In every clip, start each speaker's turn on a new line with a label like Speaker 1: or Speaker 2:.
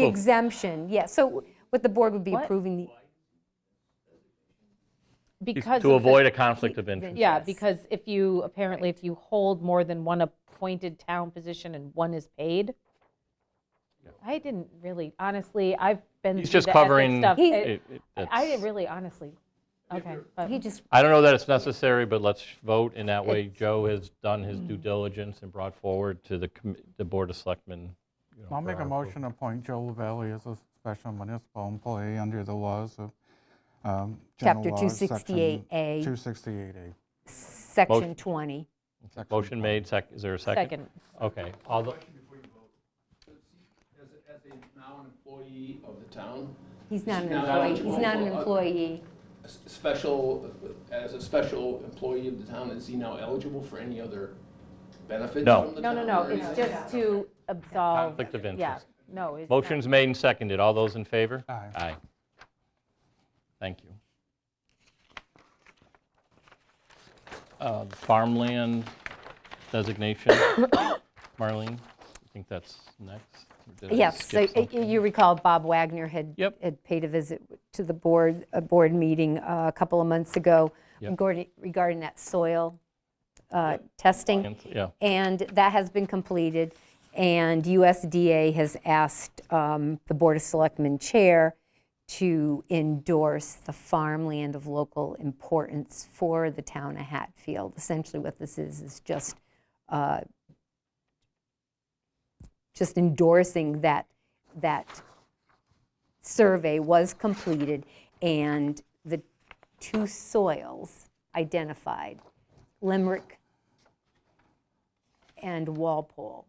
Speaker 1: The exemption, yeah, so what the board would be
Speaker 2: What?
Speaker 1: approving the.
Speaker 2: Because.
Speaker 3: To
Speaker 2: of the-
Speaker 3: avoid a conflict of interest.
Speaker 2: Yeah,
Speaker 1: Yes.
Speaker 2: because if you, apparently if you hold more than one appointed town position and one is paid, I didn't really, honestly, I've been.
Speaker 3: He's
Speaker 2: through
Speaker 3: just
Speaker 2: the ethics
Speaker 3: covering-
Speaker 2: stuff.
Speaker 1: He-
Speaker 2: It-
Speaker 3: It- it-
Speaker 2: I didn't
Speaker 3: that's-
Speaker 2: really, honestly, okay. but-
Speaker 1: He just,
Speaker 3: I don't know that it's necessary, but let's vote, and that way Joe has done his
Speaker 2: Hmm.
Speaker 3: due diligence and brought forward to the, commi- the Board of Selectmen. you know,
Speaker 4: I'll
Speaker 3: for
Speaker 4: make a
Speaker 3: our
Speaker 4: motion to appoint Joe Lavalley as a special municipal employee under the laws of um, general
Speaker 1: Chapter
Speaker 4: laws, section
Speaker 1: 268A.
Speaker 4: 268A.
Speaker 1: section 20.
Speaker 3: approval. Motion made, sec, is there a second?
Speaker 2: Second,
Speaker 3: Okay, all the,
Speaker 5: As, as a now an employee of the town,
Speaker 1: He's not an
Speaker 5: He's not
Speaker 1: employee, he's not an employee.
Speaker 5: a s- special, as a special employee of the town, is he now eligible for any other benefits
Speaker 3: No.
Speaker 5: from the
Speaker 2: no,
Speaker 5: town?
Speaker 2: no, no,
Speaker 5: or
Speaker 2: it's
Speaker 5: anything?
Speaker 2: just to absolve,
Speaker 3: conflict of
Speaker 2: yeah,
Speaker 3: interest.
Speaker 2: no. it's not.
Speaker 3: Motion's made and seconded, all those in favor?
Speaker 4: Aye.
Speaker 3: Aye. Thank you. Uh, Farmland designation, Marlene, I think that's next? or did I
Speaker 1: Yes, so,
Speaker 3: skip
Speaker 1: uh,
Speaker 3: something?
Speaker 1: you recall Bob Wagner had,
Speaker 3: Yep.
Speaker 1: had paid a visit to the board, a board meeting uh, a couple of months ago
Speaker 3: Yep.
Speaker 1: regarding regarding that soil uh, testing.
Speaker 3: Yeah.
Speaker 1: And that has been completed, and USDA has asked um, the Board of Selectmen Chair to endorse the farmland of local importance for the town of Hatfield. Essentially, what this is, is just, uh, just endorsing that, that survey was completed, and the two soils identified, Limerick and Walpole.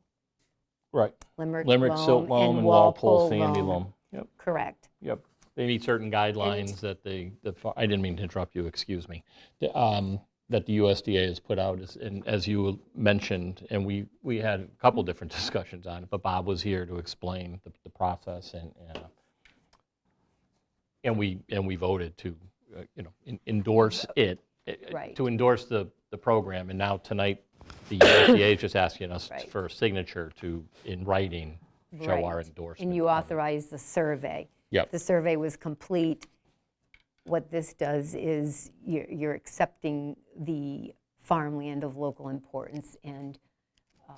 Speaker 3: Right.
Speaker 1: Limerick
Speaker 3: Limerick silt loam and Walpole sandy loam. Yep,
Speaker 1: Correct.
Speaker 3: yep. They meet certain guidelines that they, the fa- I didn't mean to interrupt you, excuse me, The, um, that the USDA has put out, as- and as you mentioned, and we, we had a couple different discussions on it, but Bob was here to explain the, the process and, and, uh, and we, and we voted to, uh, you know, en- endorse it. eh, eh,
Speaker 1: Right.
Speaker 3: To endorse the, the program, and now tonight, the USDA is just asking us
Speaker 1: Right.
Speaker 3: for a signature to, in writing, show our
Speaker 1: Right.
Speaker 3: endorsement.
Speaker 1: And you
Speaker 3: of it.
Speaker 1: authorized the survey.
Speaker 3: Yep.
Speaker 1: The survey was complete. What this does is you're you're accepting the farmland of local importance and um,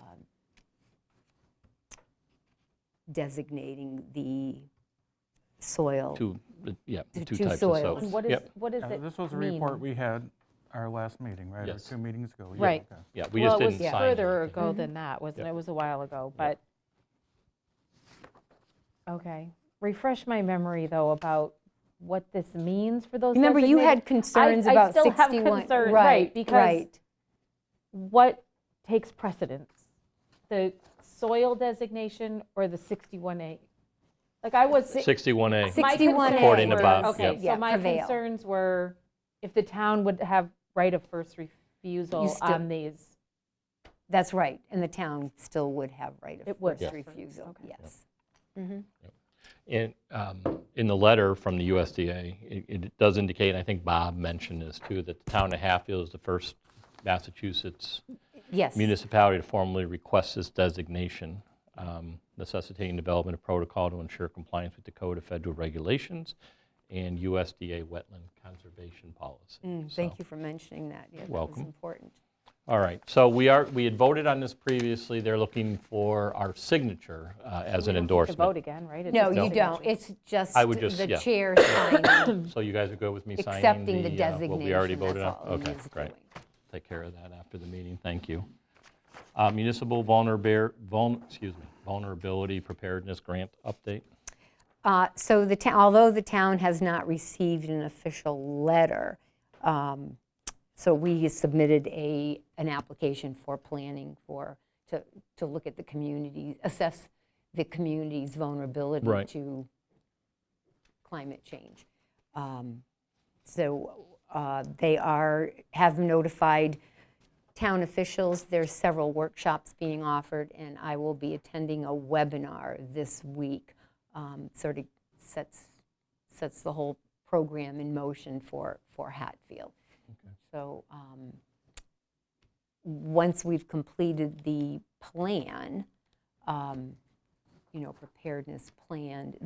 Speaker 1: designating the soil.
Speaker 3: Two, uh, yeah, the two
Speaker 1: two
Speaker 3: types of
Speaker 1: soils.
Speaker 3: soap.
Speaker 2: And what is,
Speaker 3: Yep,
Speaker 2: what does it
Speaker 4: Uh,
Speaker 2: mean?
Speaker 4: This was a report we had our last meeting, right? Or
Speaker 3: Yes.
Speaker 4: two meetings ago. Yeah,
Speaker 2: Right.
Speaker 4: okay.
Speaker 3: yeah, we just didn't
Speaker 2: Well, it was
Speaker 3: sign
Speaker 2: further
Speaker 3: anything.
Speaker 2: ago
Speaker 1: Mm-hmm.
Speaker 2: than that, wasn't it?
Speaker 3: Yeah.
Speaker 2: It was a while ago, but, okay. Refresh my memory, though, about what this means for those
Speaker 1: Remember, you had
Speaker 2: designated-
Speaker 1: concerns
Speaker 2: I
Speaker 1: about
Speaker 2: still
Speaker 1: 61.
Speaker 2: have concerns, right, because-
Speaker 1: Right,
Speaker 2: What takes precedence? The soil designation or the 61A? Like, I was.
Speaker 3: 61A,
Speaker 1: Six-
Speaker 2: my
Speaker 1: 61A
Speaker 2: concerns
Speaker 3: According to
Speaker 2: were-
Speaker 3: Bob,
Speaker 2: Okay,
Speaker 3: yep.
Speaker 1: Yeah,
Speaker 2: so my
Speaker 1: prevail.
Speaker 2: concerns were if the town would have right of first refusal
Speaker 1: still-
Speaker 2: on these.
Speaker 1: that's right. And the town still would have right of
Speaker 2: It would.
Speaker 1: first
Speaker 2: Yeah.
Speaker 1: refusal,
Speaker 2: Okay.
Speaker 1: yes.
Speaker 3: in, um, in the letter from the USDA, it- it does indicate, and I think Bob mentioned this too, that the town of Hatfield is the first Massachusetts
Speaker 1: Yes.
Speaker 3: municipality to formally request this designation, um, necessitating development of protocol to ensure compliance with the Code of Federal Regulations and USDA wetland conservation policy. So-
Speaker 1: Thank you for mentioning that. Yeah, that was
Speaker 3: welcome.
Speaker 1: important.
Speaker 3: All right, so we are, we had voted on this previously, they're looking for our signature uh, as an
Speaker 2: To vote
Speaker 3: endorsement.
Speaker 2: again, right? It's
Speaker 1: No,
Speaker 2: just a
Speaker 1: you
Speaker 2: signature.
Speaker 1: don't. It's just
Speaker 3: I would just-
Speaker 1: the
Speaker 3: yeah.
Speaker 1: chair signing,
Speaker 3: So you guys are good with me signing the...
Speaker 1: accepting the
Speaker 3: uh,
Speaker 1: designation.
Speaker 3: What we already
Speaker 1: That's
Speaker 3: voted on?
Speaker 1: all it
Speaker 3: Okay,
Speaker 1: is
Speaker 3: great.
Speaker 1: doing.
Speaker 3: Take care of that after the meeting, thank you. Uh, Municipal vulnerability, excuse me, vulnerability preparedness grant update?
Speaker 1: Uh, So the town, although the town has not received an official letter, um, so we submitted a, an application for planning for, to, to look at the community, assess the community's vulnerability
Speaker 3: Right.
Speaker 1: to climate change. Um, So uh, they are, have notified town officials. There's several workshops being offered, and I will be attending a webinar this week. um, Sort of sets, sets the whole program in motion for, for Hatfield. So um, once we've completed the plan, um, you know, preparedness planned